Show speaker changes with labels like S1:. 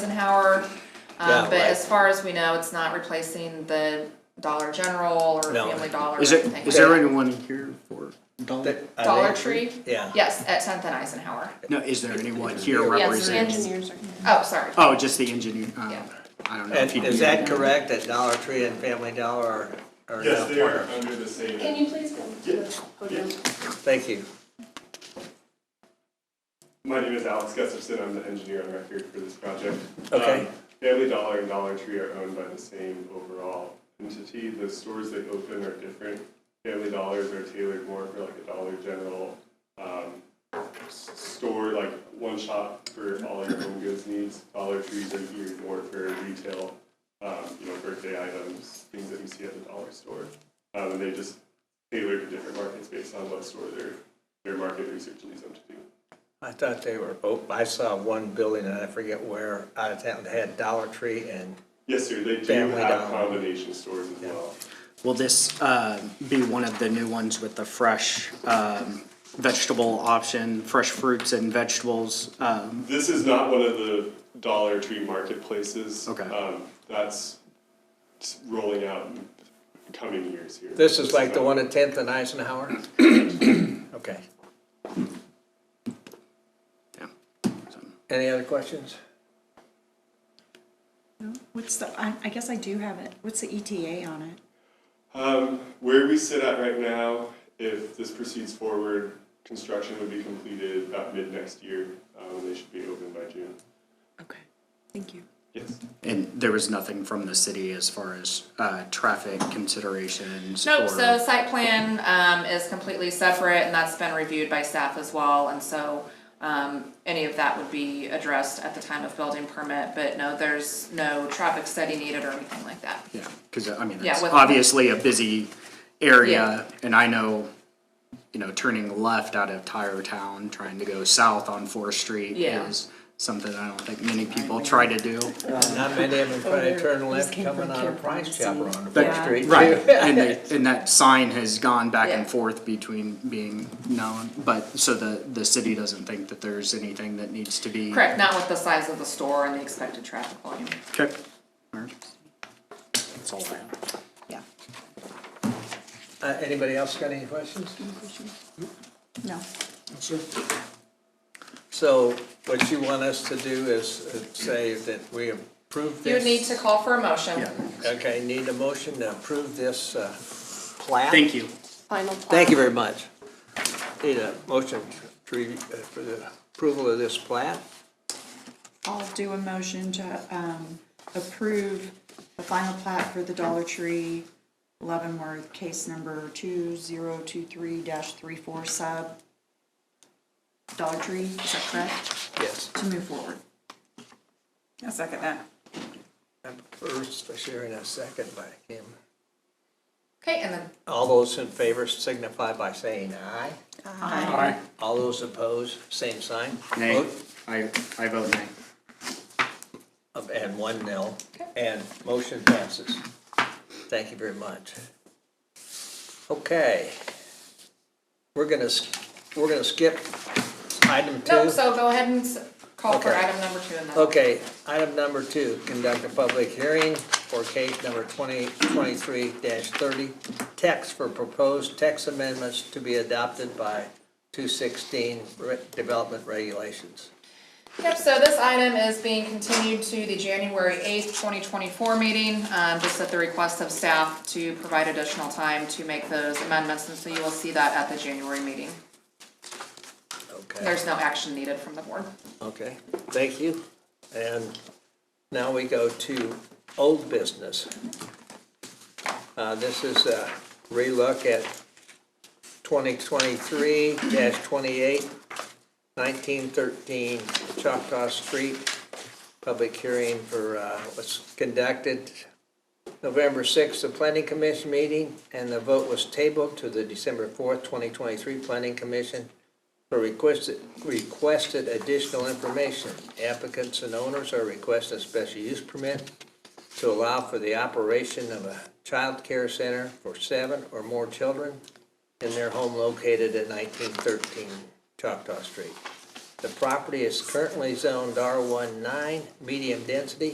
S1: Eisenhower.
S2: Yeah,
S1: Um, but
S2: right.
S1: as far as we know, it's not replacing the Dollar General or
S2: No.
S1: Family Dollar. or
S3: Is it,
S1: anything.
S3: is there anyone here for Dollar?
S2: That- I
S1: Dollar
S2: think-
S1: Tree?
S2: Yeah.
S1: Yes, at Tenth and Eisenhower.
S3: No, is there anyone here
S4: Yes, the
S3: representing?
S4: engineers are.
S1: Oh, sorry.
S3: Oh, just the engineer, uh,
S1: Yeah.
S3: I don't know.
S2: And
S3: if he'd
S2: is
S3: be-
S2: that correct, that Dollar Tree and Family Dollar are, are now
S5: Yes, they are
S2: part of?
S5: under the same.
S4: Can you please go to the podium?
S2: Thank you.
S5: My name is Alex Gustafson, I'm the engineer on record for this project.
S2: Okay.
S5: Um, Family Dollar and Dollar Tree are owned by the same overall entity. The stores they open are different. Family Dollars are tailored more for like a Dollar General um, s- store, like one shop for all your home goods needs. Dollar Trees are geared more for retail, um, you know, birthday items, things that you see at the dollar store. Um, And they just tailor to different markets based on what store their, their market research leads them to do.
S2: I thought they were, oh, I saw one building, and I forget where, out of town, that had Dollar Tree and,
S5: Yes, sir, they do
S2: Family
S5: have
S2: Dollar.
S5: combination stores as well.
S3: Will this, uh, be one of the new ones with the fresh, um, vegetable option, fresh fruits and vegetables? Um,
S5: This is not one of the Dollar Tree marketplaces.
S3: Okay.
S5: Um, that's s- rolling out in coming years here.
S2: this is like the
S5: not-
S2: one at Tenth and Eisenhower? Okay.
S3: yeah. So,
S2: Any other questions?
S6: What's the, I, I guess I do have it. What's the ETA on it?
S5: Um, where we sit at right now, if this proceeds forward, construction would be completed about mid next year. Um, they should be open by June.
S6: Okay, thank you.
S5: Yes.
S3: And there was nothing from the city as far as, uh, traffic considerations?
S1: Nope,
S3: or-
S1: so site plan, um, is completely separate and that's been reviewed by staff as well, and so, um, any of that would be addressed at the time of building permit, but no, there's no traffic study needed or anything like that.
S3: Yeah, because I mean,
S1: Yeah,
S3: it's
S1: with-
S3: obviously a busy area,
S1: Yeah.
S3: and I know, you know, turning left out of Tyre Town, trying to go south on Fourth Street
S1: Yeah.
S3: is something I don't think many people try to do.
S6: Uh,
S2: Not many of them try to turn left
S6: came
S2: coming
S6: from
S2: out
S6: Care
S2: of Price Chopper
S6: Pharmacy.
S2: on Brook
S3: But-
S2: Street.
S3: Right,
S2: too.
S3: and they, and that sign has gone back
S1: Yeah.
S3: and forth between being known, but, so the, the city doesn't think that there's anything that needs to be.
S1: Correct, not with the size of the store and the expected traffic volume.
S3: Okay. All right. That's all I have.
S6: Yeah,
S2: Uh, anybody else got any questions?
S6: no.
S2: So what you want us to do is uh, say that we approve this?
S1: You would need to call for a motion.
S3: Yeah.
S2: Okay, need a motion to approve this, uh, plat?
S3: Thank you.
S4: Final plat.
S2: Thank you very much. Need a motion to, re- uh, for the approval of this plat?
S6: I'll do a motion to, um, approve the final plat for the Dollar Tree, Leavenworth, case number two zero two three dash three four sub. Dollar Tree, is that correct?
S2: Yes.
S6: To move forward.
S7: I second that.
S2: First, by Sharon, a second by Kim.
S1: Okay, and then,
S2: All those in favor signify by saying aye.
S3: Aye.
S2: All those opposed, same sign.
S3: Nay,
S2: Vote
S3: I, I vote nay.
S2: of- And one nil, and motion passes. Thank you very much. Okay. We're gonna, s- we're gonna skip item two.
S1: no, so go ahead and s- call for
S2: Okay.
S1: item number two and then.
S2: Okay, item number two, conduct a public hearing for case number twenty, twenty-three thirty. Text for proposed text amendments to be adopted by two sixteen development regulations.
S1: Yep, so this item is being continued to the January eighth, twenty twenty-four meeting, um, just at the request of staff to provide additional time to make those amendments, and so you will see that at the January meeting.
S2: Okay,
S1: There's no action needed from the board.
S2: okay, thank you. And now we go to old business. Uh, this is a relook at twenty twenty-three 28 twenty-eight, nineteen thirteen Choctaw Street. Public hearing for, uh, was conducted November sixth, the planning commission meeting, and the vote was tabled to the December fourth, twenty twenty-three planning commission for requested, requested additional information. Applicants and owners are requesting a special use permit to allow for the operation of a child care center for seven or more children in their home located at nineteen thirteen Choctaw Street. The property is currently zoned R19, medium density,